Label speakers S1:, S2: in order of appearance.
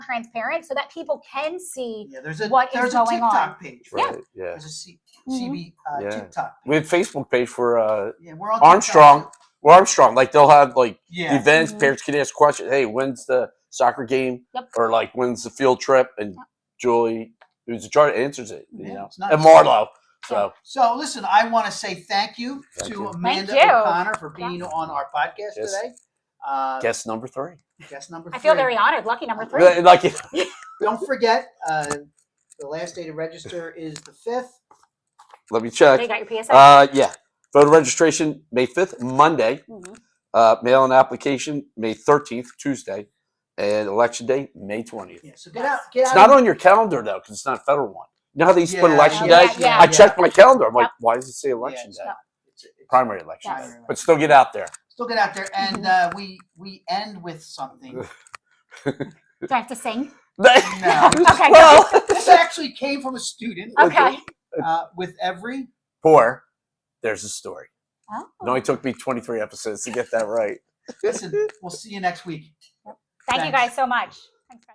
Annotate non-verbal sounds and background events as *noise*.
S1: transparent so that people can see
S2: Yeah, there's a
S1: what is
S2: there's a
S1: going
S2: TikTok
S1: on.
S2: page.
S1: Yeah.
S2: Right?
S3: Right. Yeah.
S2: There's a C-
S1: Mhm.
S2: CB uh,
S3: Yeah.
S2: TikTok.
S3: We have Facebook page for uh
S2: Yeah, we're on TikTok.
S3: Armstrong. Well, Armstrong, like they'll have like
S2: Yeah.
S3: events.
S1: Mhm.
S3: Parents can ask questions. Hey, when's the soccer game?
S1: Yep.
S3: Or like when's the field trip? And Julie, who's in charge, answers it. You
S2: Yeah,
S3: know,
S2: it's nice.
S3: and Marlo. So
S2: So listen, I want to say thank you
S3: Thank
S2: to
S3: you.
S2: Amanda
S1: Thank you.
S2: O'Connor for being
S1: Yes.
S2: on our podcast
S3: Yes.
S2: today. Uh,
S3: guess number three.
S2: guest number three.
S1: i feel very honored lucky number three
S3: Like- Like
S2: Don't forget, uh, the last day to register is the fifth.
S3: let me
S1: they
S3: check.
S1: got your psa
S3: Uh, yeah. Voter registration May fifth, Monday.
S1: Mhm.
S3: Uh, mail in application May thirteenth, Tuesday, and election day May twentieth.
S2: Yeah, so get out, get
S3: It's
S2: out.
S3: not
S2: of-
S3: on your calendar though, because it's not a federal one. You know how they used to put
S2: Yeah,
S3: election
S1: yeah,
S3: day?
S1: yeah,
S3: I
S2: yeah.
S3: checked my calendar. I'm like,
S1: Yep.
S3: why does it say
S2: Yeah,
S3: election
S2: it's
S3: day?
S2: not- it's- it's-
S3: Primary election
S1: Yes.
S3: day. But still get out there. *laughs*
S2: Still get out there,
S1: Mm-hmm.
S2: and uh, we we end with
S3: *laughs*
S2: something.
S1: do i have to sing
S3: *laughs*
S1: Okay.
S3: Well,
S2: This actually came from a student.
S1: okay
S2: Uh, with every
S3: poor. There's a story.
S1: oh.
S3: It only took me 23 episodes to get that right.
S2: listen, we'll see you next week.
S1: thank you
S2: thanks.
S1: guys so much